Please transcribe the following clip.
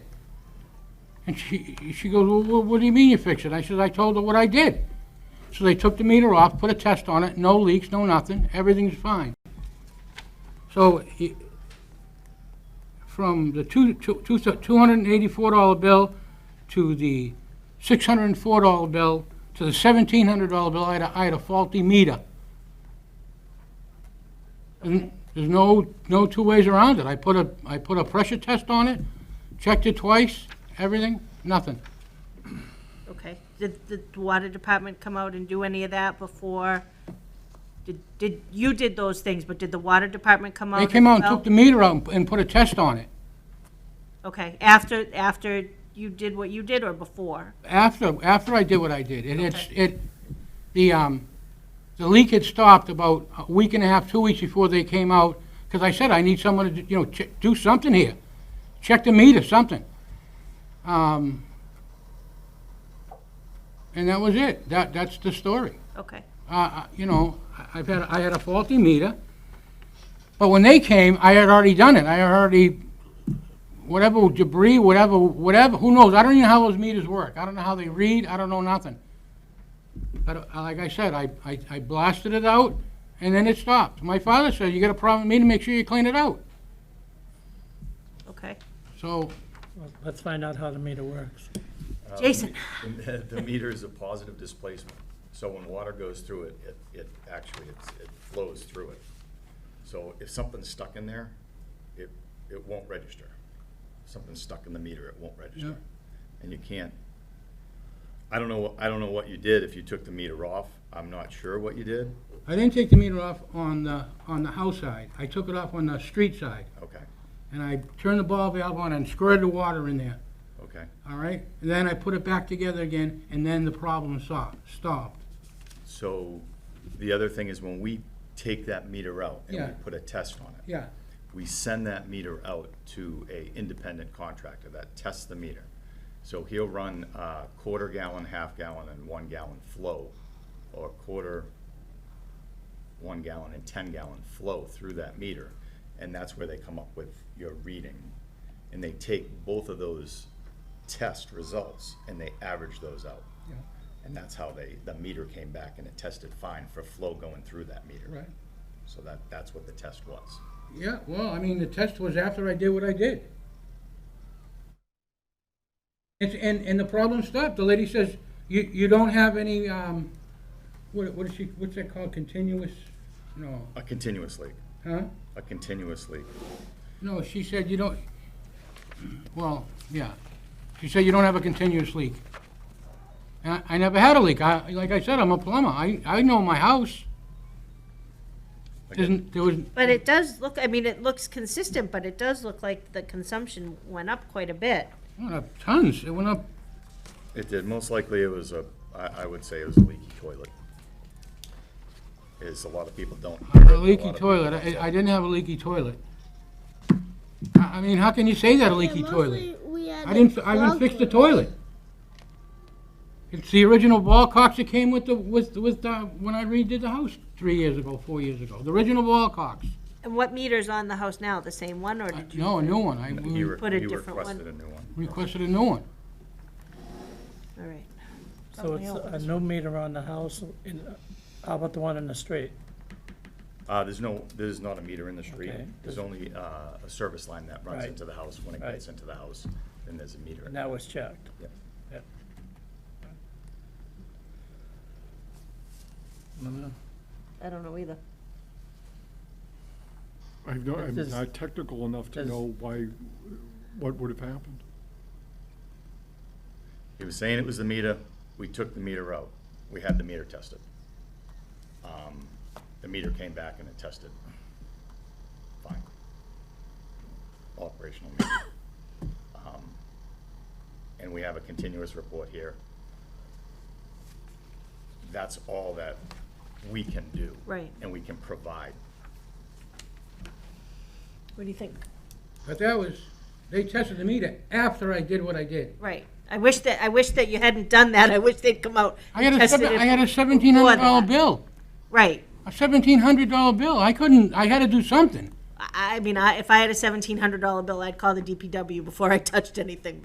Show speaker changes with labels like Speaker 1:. Speaker 1: And she, she goes, well, wha- what do you mean you fixed it? I says, I told her what I did. So they took the meter off, put a test on it, no leaks, no nothing, everything's fine. So, i- from the two, two, two two hundred and eighty-four dollar bill to the six hundred and four dollar bill to the seventeen hundred dollar bill, I had a, I had a faulty meter. And there's no, no two ways around it. I put a, I put a pressure test on it, checked it twice, everything, nothing.
Speaker 2: Okay. Did the water department come out and do any of that before? Did, did, you did those things, but did the water department come out?
Speaker 1: They came out
Speaker 2: as
Speaker 1: and took
Speaker 2: well?
Speaker 1: the meter out and- and put a test on it.
Speaker 2: Okay, after, after you did what you did or before?
Speaker 1: After, after I did what I did, it had, it, the, um, the leak had stopped about a week and a half, two weeks before they came out, because I said, I need someone to, do- you know, che- do something here. Check the meter, something. Um, and that was it. That, that's the story.
Speaker 2: Okay,
Speaker 1: Uh, uh, you know, I- I've had, I had a faulty meter, but when they came, I had already done it. I had already, whatever debris, whatever, whatever, who knows? I don't even know how those meters work. I don't know how they read, I don't know nothing. But uh, like I said, I, I I blasted it out, and then it stopped. My father said, you got a problem with meter, make sure you clean it out.
Speaker 2: okay.
Speaker 1: So,
Speaker 3: Well, Let's find out how the meter works.
Speaker 2: Jason,
Speaker 4: Uh, The the meter is a positive displacement, so when water goes through it, it, it actually, it's, it flows through it. So if something's stuck in there, it, it won't register. If Something's stuck in the meter, it won't register. And you can't, I don't know, what- I don't know what you did, if you took the meter off, I'm not sure what you did,
Speaker 1: I didn't take the meter off on the, on the house side. I took it off on the street side,
Speaker 4: okay,
Speaker 1: and I turned the ball valve on and squirted the water in there.
Speaker 4: okay.
Speaker 1: All right, and then I put it back together again, and then the problem stopped, stopped.
Speaker 4: So the other thing is when we take that meter out and
Speaker 1: Yeah.
Speaker 4: we put a test on it.
Speaker 1: Yeah,
Speaker 4: we send that meter out to a independent contractor that tests the meter. So he'll run uh, quarter gallon, half gallon, and one gallon flow, or quarter, one gallon, and ten gallon flow through that meter. And that's where they come up with your reading. And they take both of those test results and they average those out.
Speaker 1: Yeah.
Speaker 4: And that's how they, the meter came back and it tested fine for flow going through that meter.
Speaker 1: right.
Speaker 4: So that, that's what the test was.
Speaker 1: Yeah, well, I mean, the test was after I did what I did. It's, and, and the problem stopped. The lady says, you, you don't have any, um, what, what is she, what's that called, continuous? No,
Speaker 4: A continuous leak.
Speaker 1: huh?
Speaker 4: a continuous leak.
Speaker 1: No, she said you don't, well, yeah. She said you don't have a continuous leak. And I, I never had a leak. I, like I said, I'm a plumber. I, I know my house. Isn't, there was,
Speaker 2: but it does look, I mean, it looks consistent, but it does look like the consumption went up quite a bit.
Speaker 1: went up tons. It went up,
Speaker 4: It did, most likely it was a, I, I would say it was a leaky toilet. Is a lot of people don't. hear it,
Speaker 1: a
Speaker 4: lot
Speaker 1: leaky
Speaker 4: of people-
Speaker 1: toilet. I, I didn't have a leaky toilet. I, I mean, how can you say that, a leaky toilet? I didn't, I didn't fix the toilet. It's the original ball cox that came with the, with, with, uh, when I redid the house three years ago, four years ago. The original ball cox.
Speaker 2: And what meter's on the house now? The same one or did you?
Speaker 1: No, a new one. I we
Speaker 4: You re-
Speaker 2: Put a
Speaker 4: you
Speaker 2: different one.
Speaker 4: requested a new one.
Speaker 1: requested a new one.
Speaker 2: All right.
Speaker 3: So it's a new meter on the house, in- how about the one in the street?
Speaker 4: Uh, there's no, there's not a meter in the street,
Speaker 3: Okay.
Speaker 4: there's only, uh, a service line that runs
Speaker 3: Right.
Speaker 4: into the house, when it
Speaker 3: Right.
Speaker 4: gets into the house, then there's a meter.
Speaker 3: And that was checked.
Speaker 4: Yeah.
Speaker 3: Yeah. I don't know.
Speaker 2: I don't know either.
Speaker 5: I've no, I'm
Speaker 3: Does-
Speaker 5: not technical enough to
Speaker 3: does-
Speaker 5: know why, what would have happened.
Speaker 4: He was saying it was the meter, we took the meter out, we had the meter tested. Um, The meter came back and it tested. Fine. Operational meter. Um, And we have a continuous report here. That's all that we can do.
Speaker 2: Right.
Speaker 4: And we can provide.
Speaker 2: What do you think?
Speaker 1: But that was, they tested the meter after I did what I did.
Speaker 2: Right. I wish that, I wish that you hadn't done that. I wish they'd come out.
Speaker 1: I had
Speaker 2: and
Speaker 1: a,
Speaker 2: tested
Speaker 1: seven-
Speaker 2: it
Speaker 1: I had a
Speaker 2: before
Speaker 1: seventeen hundred dollar
Speaker 2: that.
Speaker 1: bill,
Speaker 2: Right.
Speaker 1: a seventeen hundred dollar bill. I couldn't, I had to do something.
Speaker 2: I, I mean, I, if I had a seventeen hundred dollar bill, I'd call the DPW before I touched anything.